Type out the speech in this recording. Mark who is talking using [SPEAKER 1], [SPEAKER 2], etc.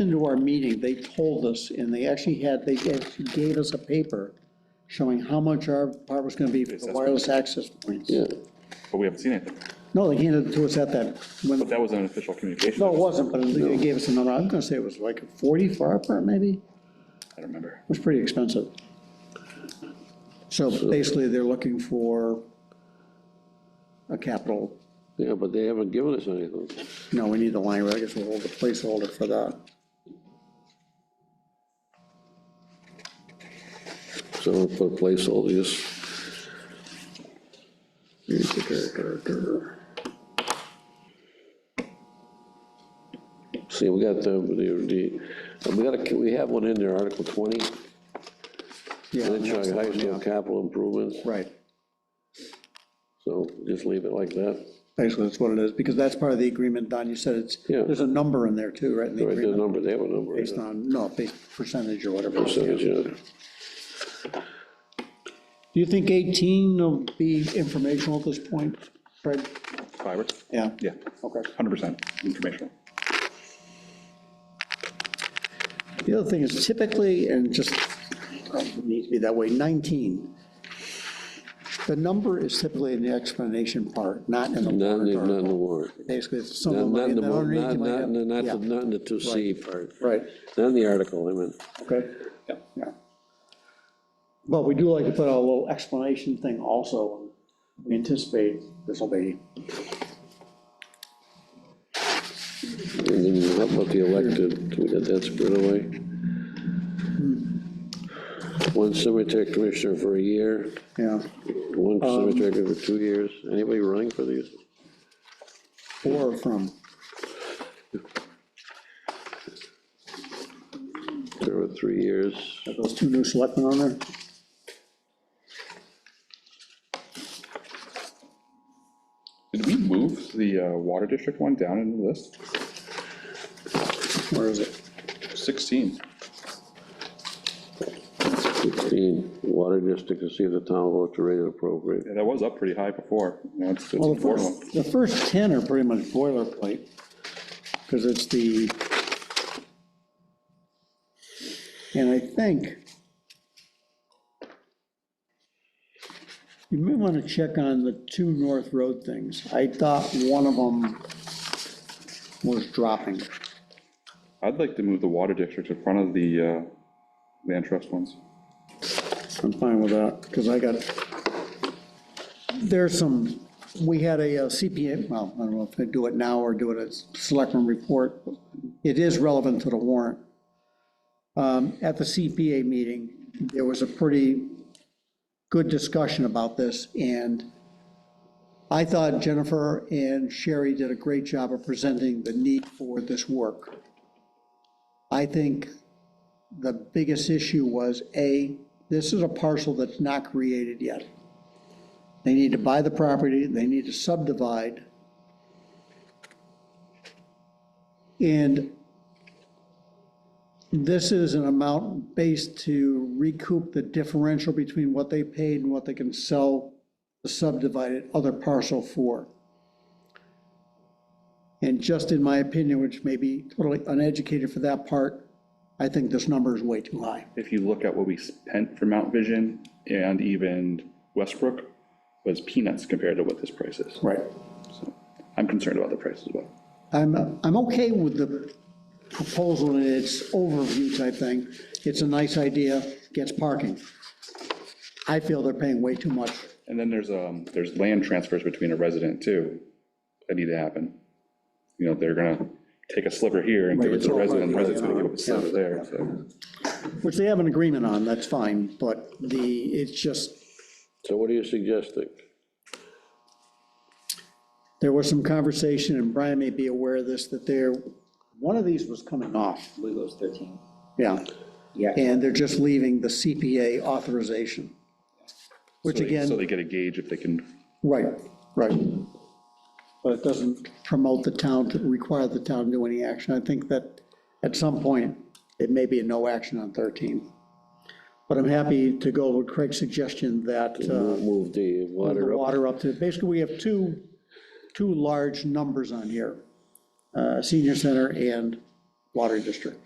[SPEAKER 1] into our meeting, they told us, and they actually had, they actually gave us a paper showing how much our part was gonna be for the wireless access points.
[SPEAKER 2] Yeah,
[SPEAKER 3] But we haven't seen anything.
[SPEAKER 1] No, they handed it to us at that, when,
[SPEAKER 3] But that was an official communication.
[SPEAKER 1] no, it wasn't, but they gave us a number, I'm gonna say it was like forty for our part, maybe? It
[SPEAKER 3] I don't remember.
[SPEAKER 1] was pretty expensive. So basically, they're looking for a capital,
[SPEAKER 2] yeah, but they haven't given us anything.
[SPEAKER 1] no, we need the line, I guess we'll hold a placeholder for that.
[SPEAKER 2] So we'll put a placeholder, just, see, we got the, the, the- we got a, we have one in there, Article twenty,
[SPEAKER 1] Yeah,
[SPEAKER 2] Winchog High School capital improvements,
[SPEAKER 1] Right.
[SPEAKER 2] so just leave it like that.
[SPEAKER 1] Basically, that's what it is, because that's part of the agreement, Don, you said it's,
[SPEAKER 2] Yeah.
[SPEAKER 1] there's a number in there too, right? in the
[SPEAKER 2] Right, the
[SPEAKER 1] agreement,
[SPEAKER 2] number, they have a number.
[SPEAKER 1] Based on, no, based percentage or whatever.
[SPEAKER 2] Percentage,
[SPEAKER 1] Do
[SPEAKER 2] yeah.
[SPEAKER 1] you think 18 will be informational at this point, Fred?
[SPEAKER 3] Fiber?
[SPEAKER 1] Yeah.
[SPEAKER 3] Yeah,
[SPEAKER 1] Okay.
[SPEAKER 3] 100% informational.
[SPEAKER 1] The other thing is typically, and just, um, it needs to be that way, 19. The number is typically in the explanation part, not in the
[SPEAKER 2] Not in,
[SPEAKER 1] warrant
[SPEAKER 2] the- not in the
[SPEAKER 1] article.
[SPEAKER 2] warrant.
[SPEAKER 1] Basically, it's
[SPEAKER 2] Not
[SPEAKER 1] something.
[SPEAKER 2] not
[SPEAKER 1] like-
[SPEAKER 2] in the,
[SPEAKER 1] and underneath
[SPEAKER 2] not,
[SPEAKER 1] you might
[SPEAKER 2] not,
[SPEAKER 1] have-
[SPEAKER 2] in the- not,
[SPEAKER 1] yeah,
[SPEAKER 2] the- not in the two C part,
[SPEAKER 1] Right.
[SPEAKER 2] not in the article, I mean,
[SPEAKER 1] Okay. Yeah. But we do like to put a little explanation thing also. We anticipate this will be,
[SPEAKER 2] and then how about the elected, we got that spread away? One cemetery commissioner for a year,
[SPEAKER 1] yeah,
[SPEAKER 2] one cemetery commissioner for two years, anybody running for these?
[SPEAKER 1] or from,
[SPEAKER 2] There were three years,
[SPEAKER 1] are those two new selectmen on there?
[SPEAKER 3] Did we move the uh, water district one down in the list?
[SPEAKER 1] Where is it?
[SPEAKER 3] 16.
[SPEAKER 2] sixteen, water district to see if the town vote to rate it appropriate.
[SPEAKER 3] Yeah, that was up pretty high before. Now it's it's
[SPEAKER 1] Well,
[SPEAKER 3] a
[SPEAKER 1] the
[SPEAKER 3] four one.
[SPEAKER 1] first, the first 10 are pretty much boilerplate, because it's the, and I think, you may want to check on the two North Road things. I thought one of them was dropping.
[SPEAKER 3] I'd like to move the water district in front of the uh, land trust ones.
[SPEAKER 1] I'm fine with that, because I got, there's some, we had a uh, CPA, well, I don't know if they do it now or do it as selectman report. It is relevant to the warrant. Um, At the CPA meeting, there was a pretty good discussion about this, and I thought Jennifer and Sherry did a great job of presenting the need for this work. I think the biggest issue was, A, this is a parcel that's not created yet. They need to buy the property, they need to subdivide. And this is an amount based to recoup the differential between what they paid and what they can sell the subdivided other parcel for. And just in my opinion, which may be totally uneducated for that part, I think this number is way too high.
[SPEAKER 3] If you look at what we spent for Mount Vision and even Westbrook, was peanuts compared to what this price is.
[SPEAKER 1] Right.
[SPEAKER 3] So I'm concerned about the price as well.
[SPEAKER 1] I'm, I'm okay with the proposal and its overview type thing. It's a nice idea, gets parking. I feel they're paying way too much.
[SPEAKER 3] And then there's, um, there's land transfers between a resident too, that need to happen. You know, they're gonna take a sliver here and give it to a resident, resident's gonna give up a sliver there, so.
[SPEAKER 1] Which they have an agreement on, that's fine, but the, it's just,
[SPEAKER 2] So what are you suggesting?
[SPEAKER 1] there was some conversation, and Brian may be aware of this, that there, one of these was coming off,
[SPEAKER 4] believe it was 13.
[SPEAKER 1] yeah.
[SPEAKER 4] Yeah.
[SPEAKER 1] And they're just leaving the CPA authorization. Which
[SPEAKER 3] So they-
[SPEAKER 1] again.
[SPEAKER 3] So they get a gauge if they can,
[SPEAKER 1] Right, right. But it doesn't promote the town, to require the town to do any action. I think that at some point, it may be a no action on 13. But I'm happy to go with Craig's suggestion that uh,
[SPEAKER 2] Move the water
[SPEAKER 1] the
[SPEAKER 2] up.
[SPEAKER 1] water up to, basically, we have two, two large numbers on here, uh, senior center and water district.